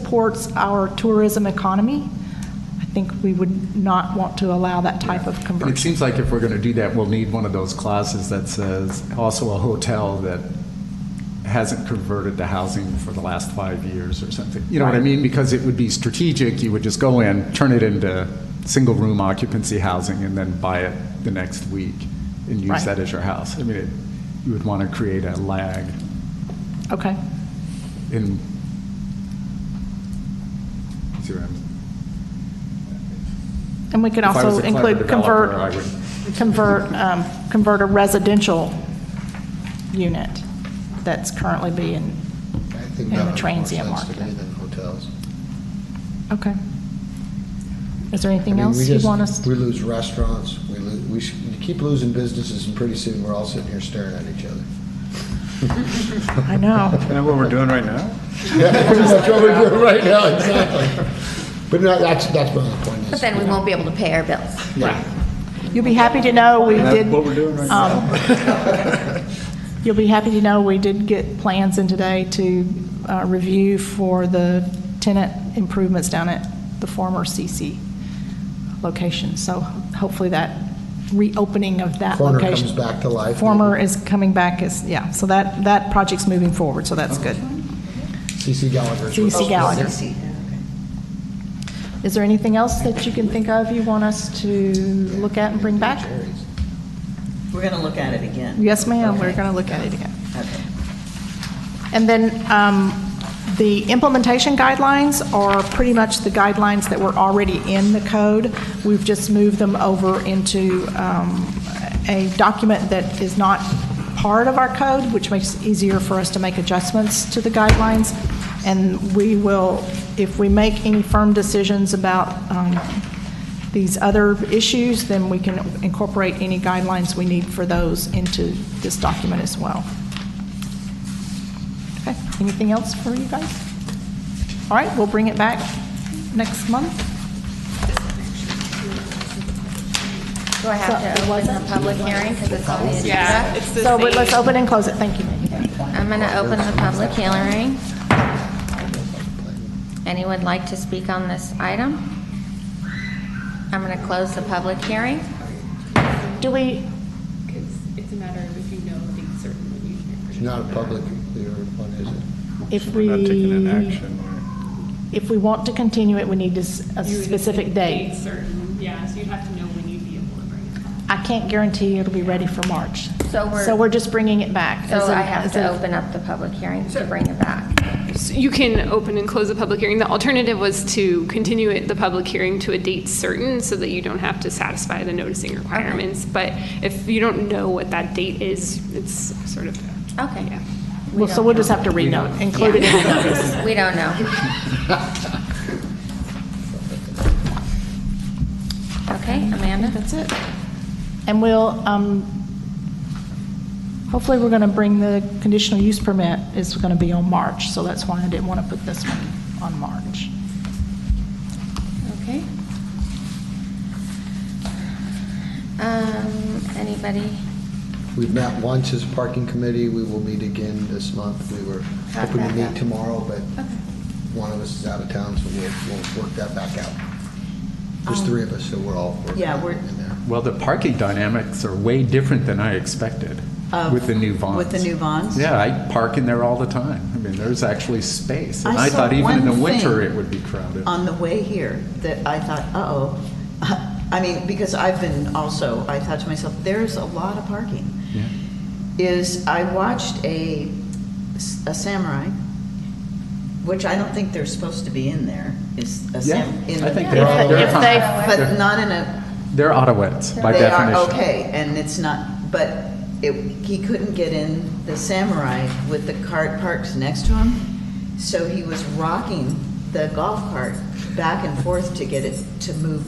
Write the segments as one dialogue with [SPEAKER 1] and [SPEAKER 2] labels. [SPEAKER 1] supports our tourism economy. I think we would not want to allow that type of
[SPEAKER 2] And it
[SPEAKER 1] conversion.
[SPEAKER 2] seems like if we're going to do that, we'll need one of those clauses that says also a hotel that hasn't converted to housing for the last five years or something. You know what I mean? Because it would be strategic. You would just go in, turn it into single-room occupancy housing, and then buy it the next week and use
[SPEAKER 1] Right.
[SPEAKER 2] that as your house. I mean, it- you would want to create a lag
[SPEAKER 1] Okay,
[SPEAKER 2] in. See what I'm?
[SPEAKER 1] and we could
[SPEAKER 2] If I was
[SPEAKER 1] also
[SPEAKER 2] a clever
[SPEAKER 1] include
[SPEAKER 2] developer,
[SPEAKER 1] convert,
[SPEAKER 2] I would-
[SPEAKER 1] convert, um, convert a residential unit that's currently being,
[SPEAKER 3] I
[SPEAKER 1] in
[SPEAKER 3] think
[SPEAKER 1] the
[SPEAKER 3] that makes more
[SPEAKER 1] transient
[SPEAKER 3] sense to
[SPEAKER 1] market.
[SPEAKER 3] me than hotels.
[SPEAKER 1] okay. Is there anything
[SPEAKER 3] I mean, we
[SPEAKER 1] else you
[SPEAKER 3] just-
[SPEAKER 1] want us?
[SPEAKER 3] We lose restaurants, we lose, we sh- we keep losing businesses, and pretty soon, we're all sitting here staring at each other.
[SPEAKER 1] I know.
[SPEAKER 4] Isn't that what we're doing right now?
[SPEAKER 3] That's what we're doing right now, exactly. But no, that's, that's my other point. is-
[SPEAKER 5] But then we won't be able to pay our bills.
[SPEAKER 3] Yeah.
[SPEAKER 1] You'll be happy to know we
[SPEAKER 4] That's
[SPEAKER 1] did.
[SPEAKER 4] what we're doing right now.
[SPEAKER 1] um, You'll be happy to know we did get plans in today to uh, review for the tenant improvements down at the former CC location. So hopefully that reopening of that
[SPEAKER 3] Corner
[SPEAKER 1] location.
[SPEAKER 3] comes back to life.
[SPEAKER 1] Former is coming back, is, yeah, so that, that project's moving forward, so that's good.
[SPEAKER 3] CC Gallagher's.
[SPEAKER 1] CC
[SPEAKER 6] Oh,
[SPEAKER 1] Gallagher. Is there anything else that you can think of you want us to look at and bring back?
[SPEAKER 3] Jerry's.
[SPEAKER 7] We're going to look at it again.
[SPEAKER 1] Yes, ma'am, we're
[SPEAKER 7] Okay.
[SPEAKER 1] going to look at it again.
[SPEAKER 7] Okay.
[SPEAKER 1] And then um, the implementation guidelines are pretty much the guidelines that were already in the code. We've just moved them over into um, a document that is not part of our code, which makes it easier for us to make adjustments to the guidelines. And we will, if we make any firm decisions about um, these other issues, then we can incorporate any guidelines we need for those into this document as well. Okay, anything else for you guys? All right, we'll bring it back next month.
[SPEAKER 5] Do I have to open the public hearing because it's on the agenda? Yeah.
[SPEAKER 1] So, but let's open and close it, thank you.
[SPEAKER 5] I'm going to open the public hearing. Anyone like to speak on this item? I'm going to close the public hearing.
[SPEAKER 1] Do we,
[SPEAKER 8] It's, it's a matter of if you know the certain when you hear.
[SPEAKER 3] It's not a public, one is it?
[SPEAKER 1] if
[SPEAKER 4] We're
[SPEAKER 1] we...
[SPEAKER 4] not taking an action. We're-
[SPEAKER 1] If we want to continue it, we need a s- a
[SPEAKER 8] You would-
[SPEAKER 1] specific
[SPEAKER 8] Date
[SPEAKER 1] date.
[SPEAKER 8] certain, yeah, so you'd have to know when you'd be able to bring it.
[SPEAKER 1] I can't guarantee it'll be ready for March.
[SPEAKER 5] So we're-
[SPEAKER 1] just bringing it back.
[SPEAKER 5] So
[SPEAKER 1] as a-
[SPEAKER 5] I have
[SPEAKER 1] as
[SPEAKER 5] to
[SPEAKER 1] a-
[SPEAKER 5] open up the public hearing to bring it back.
[SPEAKER 8] So You can open and close the public hearing. The alternative was to continue it, the public hearing to a date certain so that you don't have to satisfy the noticing requirements. But if you don't know what that date is, it's sort of,
[SPEAKER 5] Okay.
[SPEAKER 8] yeah.
[SPEAKER 5] We
[SPEAKER 1] Well, So
[SPEAKER 5] don't
[SPEAKER 1] we'll
[SPEAKER 5] know.
[SPEAKER 1] just have to renote, include it in the notice.
[SPEAKER 5] We don't know. Okay, Amanda?
[SPEAKER 1] That's it. And we'll, um, hopefully, we're going to bring the conditional use permit is going to be on March, so that's why I didn't want to put this one on March.
[SPEAKER 5] Okay. Um, anybody?
[SPEAKER 3] We've met once as a parking committee, we will meet again this month. We were hoping to meet tomorrow, but one of us is out of town, so we'll, we'll work that back out. There's
[SPEAKER 1] Um,
[SPEAKER 3] three of us, so we're all working
[SPEAKER 6] Yeah, we're-
[SPEAKER 3] in there.
[SPEAKER 2] Well, the parking dynamics are way different than I expected
[SPEAKER 6] Of-
[SPEAKER 2] with the new bonds.
[SPEAKER 6] with the new bonds?
[SPEAKER 2] Yeah, I park in there all the time. I mean, there's actually space. And
[SPEAKER 6] I
[SPEAKER 2] I
[SPEAKER 6] saw
[SPEAKER 2] thought even in the
[SPEAKER 6] one
[SPEAKER 2] winter
[SPEAKER 6] thing
[SPEAKER 2] it would be crowded.
[SPEAKER 6] on the way here that I thought, uh-oh. I mean, because I've been also, I thought to myself, there's a lot of parking.
[SPEAKER 2] Yeah.
[SPEAKER 6] Is I watched a, a samurai, which I don't think they're supposed to be in there, is a
[SPEAKER 2] Yeah,
[SPEAKER 6] sam. in
[SPEAKER 2] I
[SPEAKER 6] the-
[SPEAKER 2] think they're, they're
[SPEAKER 1] if
[SPEAKER 2] fine.
[SPEAKER 6] But not in a,
[SPEAKER 2] They're Ottawets by
[SPEAKER 6] they are
[SPEAKER 2] definition.
[SPEAKER 6] okay, and it's not, but it, he couldn't get in the Samurai with the cart parked next to him, so he was rocking the golf cart back and forth to get it to move,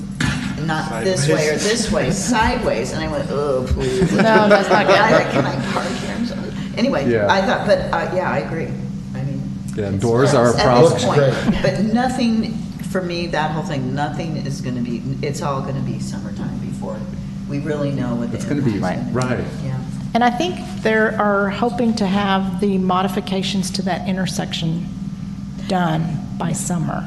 [SPEAKER 6] not this way or this way, sideways, and I went, oh, please.
[SPEAKER 1] No, that's not good.
[SPEAKER 6] I like, Can I park here? I'm sorry." Anyway,
[SPEAKER 2] Yeah.
[SPEAKER 6] I thought, but, uh, yeah, I agree, I mean.
[SPEAKER 2] Yeah,
[SPEAKER 6] it's
[SPEAKER 2] doors are a
[SPEAKER 6] nuts at
[SPEAKER 2] problem.
[SPEAKER 6] this
[SPEAKER 3] Looks
[SPEAKER 6] point. But nothing, for me, that whole thing, nothing is gonna be, it's all gonna be summertime before we really know what the
[SPEAKER 2] It's gonna be-
[SPEAKER 6] impact's gonna be.
[SPEAKER 2] right.
[SPEAKER 6] Yeah.
[SPEAKER 1] And I think they are hoping to have the modifications to that intersection done by summer.